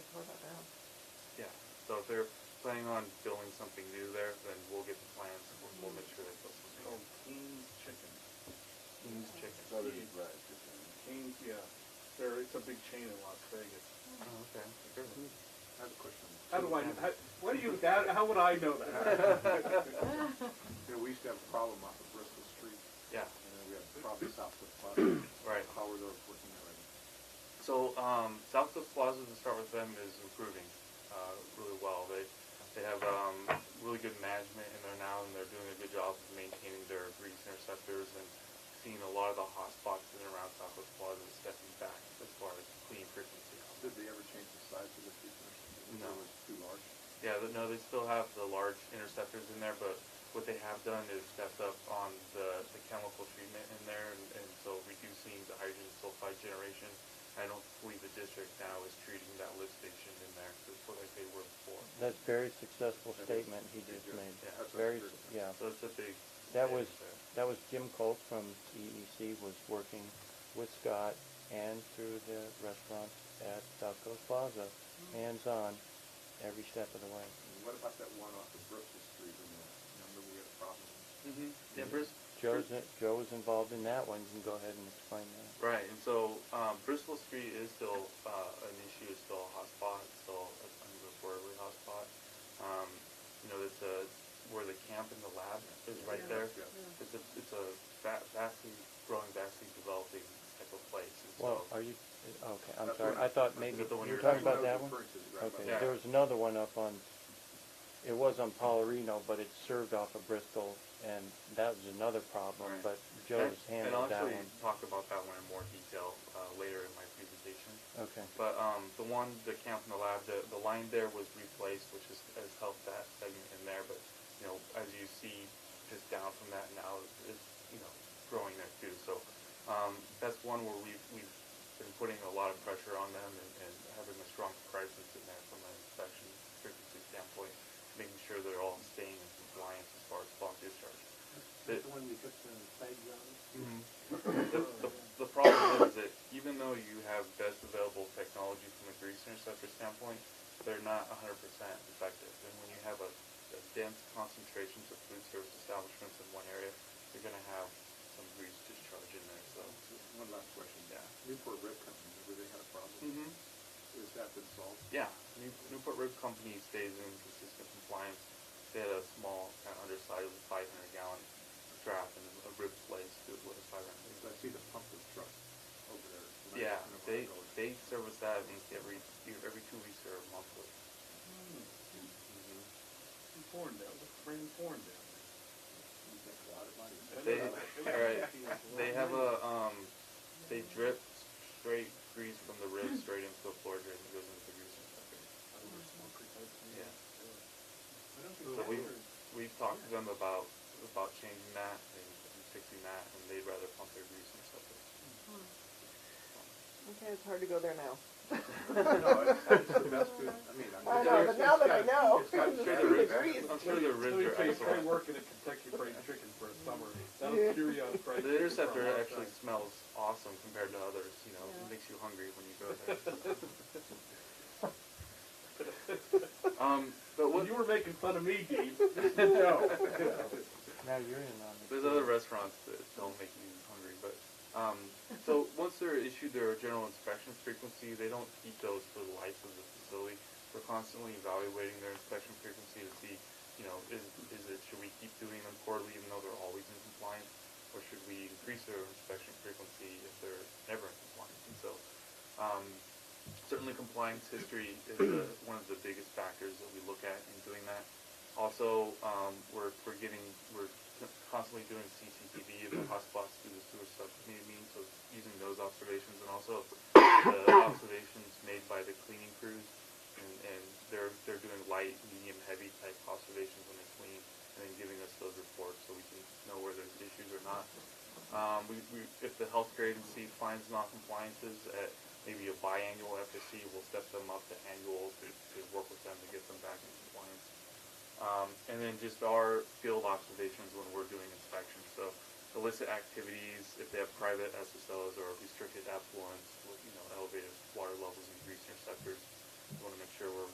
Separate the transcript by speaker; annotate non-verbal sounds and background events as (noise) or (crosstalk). Speaker 1: So if they're planning on building something new there, then we'll get the plans, and we'll- we'll make sure they put something
Speaker 2: Oh,
Speaker 1: in.
Speaker 2: King's Chicken.
Speaker 1: King's Chicken.
Speaker 2: That is
Speaker 3: right.
Speaker 2: King's, yeah. There, it's a big chain in Las Vegas.
Speaker 1: Oh, okay, good.
Speaker 2: Mm-hmm.
Speaker 3: I have a question.
Speaker 2: How do I, how, what do you, that, how would I know (laughs) that? Hmm,
Speaker 3: You know, we used to have a problem off of Bristol Street,
Speaker 1: Yeah,
Speaker 3: and then we had a problem south of Plaza.
Speaker 1: Right.
Speaker 3: How were those working already?
Speaker 1: so, um, Southwest Plaza, to start with them, is improving, uh, really well. They, they have, um, really good management in there now, and they're doing a good job of maintaining their grease interceptors and seeing a lot of the hot spots in and around Southwest Plaza stepping back as far as clean frequency.
Speaker 3: Did they ever change the size of the freezer?
Speaker 1: No.
Speaker 3: It was too large.
Speaker 1: Yeah, but no, they still have the large interceptors in there, but what they have done is stepped up on the, the chemical treatment in there, and, and so reducing the hydrogen sulfide generation. I don't believe the district now is treating that lift station in there, that's what like they were before.
Speaker 4: That's very successful
Speaker 3: That is-
Speaker 4: statement he just
Speaker 3: Yeah,
Speaker 4: made.
Speaker 1: that's
Speaker 3: what I
Speaker 4: Very,
Speaker 3: heard.
Speaker 4: s- yeah.
Speaker 1: So it's a big.
Speaker 4: That was,
Speaker 1: advantage there.
Speaker 4: that was Jim Colt from EEC was working with Scott and through the restaurants at South Coast Plaza, hands-on, every step of the way.
Speaker 3: And what about that one off of Bristol Street? And uh, remember we had a problem?
Speaker 1: Mm-hmm. Yeah, Bris-
Speaker 4: Joe's, in- Joe was involved in that one, you can go ahead and explain that.
Speaker 1: Right, and so um, Bristol Street is still uh, an issue, it's still a hot spot, it's still an unreportedly hot spot. Um, you know, it's a, where the camp and the lab is right
Speaker 3: Yeah.
Speaker 1: there.
Speaker 3: Yeah.
Speaker 1: It's a, it's a va- vastly growing, vastly developing type of place. And so,
Speaker 4: Well, are you, okay, I'm
Speaker 3: That's
Speaker 4: sorry,
Speaker 3: one.
Speaker 4: I thought
Speaker 3: Is
Speaker 4: maybe,
Speaker 1: that the one
Speaker 4: you were
Speaker 1: you're
Speaker 4: talking
Speaker 1: talking
Speaker 4: about that one? Okay,
Speaker 1: Yeah.
Speaker 4: there was another one up on, it was on Polarino, but it served off of Bristol, and that was another problem,
Speaker 1: Right.
Speaker 4: but
Speaker 1: and,
Speaker 4: Joe's
Speaker 1: and I'll
Speaker 4: handled that
Speaker 1: actually
Speaker 4: one.
Speaker 1: talk about that one in more detail uh, later in my presentation.
Speaker 4: Okay,
Speaker 1: But um, the one, the camp in the lab, the, the line there was replaced, which has, has helped that segment in there. But you know, as you see, just down from that now, it's you know growing there too. So um, that's one where we've we've been putting a lot of pressure on them and, and having a strong presence in there from an inspection frequency standpoint, making sure they're all staying in compliance as far as fault discharge. The-
Speaker 5: The one we took the flags on?
Speaker 1: the, the, the problem is that even though you have best available technology from a grease interceptor standpoint, they're not 100% effective. And when you have a, a dense concentration of food service establishments in one area, you're going to have some grease discharge in there. So,
Speaker 3: One last question.
Speaker 1: Yeah.
Speaker 3: Newport Rib Company, remember they had a problem? Is that been solved?
Speaker 1: yeah, New, Newport Rib Company stays in consistent compliance. They had a small, kind of undersized, 500 gallon draft and a rib place that was 500
Speaker 3: Because I see the pumper truck over there. and I
Speaker 1: Yeah,
Speaker 3: don't know where
Speaker 1: they
Speaker 3: they're going.
Speaker 1: they service that at least every every two weeks or monthly.
Speaker 2: Porn down, bring porn down.
Speaker 3: You get a lot of money.
Speaker 1: They all right. They have a um, they drip straight grease from the rib straight into the floor drain that goes into the grease inspector. Yeah. So we we've talked to them about about changing that and, and fixing that, and they'd rather pump their grease inspector.
Speaker 6: Okay, it's hard to go there now.
Speaker 3: (laughs) No, it's it's the best food, I mean, I'm.
Speaker 6: I know, but now that I know.
Speaker 3: It's got
Speaker 6: the (laughs)
Speaker 3: cheddar
Speaker 6: food
Speaker 3: in
Speaker 6: is
Speaker 3: there.
Speaker 6: grease.
Speaker 1: I'm sure their
Speaker 2: Let
Speaker 1: ribs
Speaker 2: me
Speaker 1: are
Speaker 2: tell you, try
Speaker 1: excellent.
Speaker 2: working at Kentucky Fried Chicken for a summer. That
Speaker 6: Yeah.
Speaker 2: was Cheerios fried chicken.
Speaker 1: The interceptor
Speaker 2: for a long
Speaker 1: actually
Speaker 2: time.
Speaker 1: smells awesome compared to others. You know,
Speaker 6: Yeah.
Speaker 1: it makes you hungry when you go there. um, but what
Speaker 2: You were making fun of me, Dean. (laughs) No.
Speaker 4: now you're in on it.
Speaker 1: There's other restaurants that don't make you hungry, but um, so once they're issued their general inspection frequency, they don't keep those for the life of the facility. We're constantly evaluating their inspection frequency to see, you know, is is it should we keep doing them quarterly even though they're always in compliance, or should we increase their inspection frequency if they're never in compliance? And so, um, certainly compliance history is the, one of the biggest factors that we look at in doing that. Also, um, we're, we're getting, we're constantly doing CCTV of the hotspots through the sewer subcommittee meeting, so using those observations and also the (coughs) observations made by the cleaning crews. And, and they're, they're doing light, medium, heavy type observations when they clean and then giving us those reports so we can know where there's issues or not. Um, we, we, if the healthcare agency finds non-compliances at maybe a biannual FSC, we'll step them up to annual to, to work with them to get them back in compliance. Um, and then just our field observations when we're doing inspections. So illicit activities, if they have private SSOs or restricted effluents, you know, elevated water levels and grease interceptors, we want to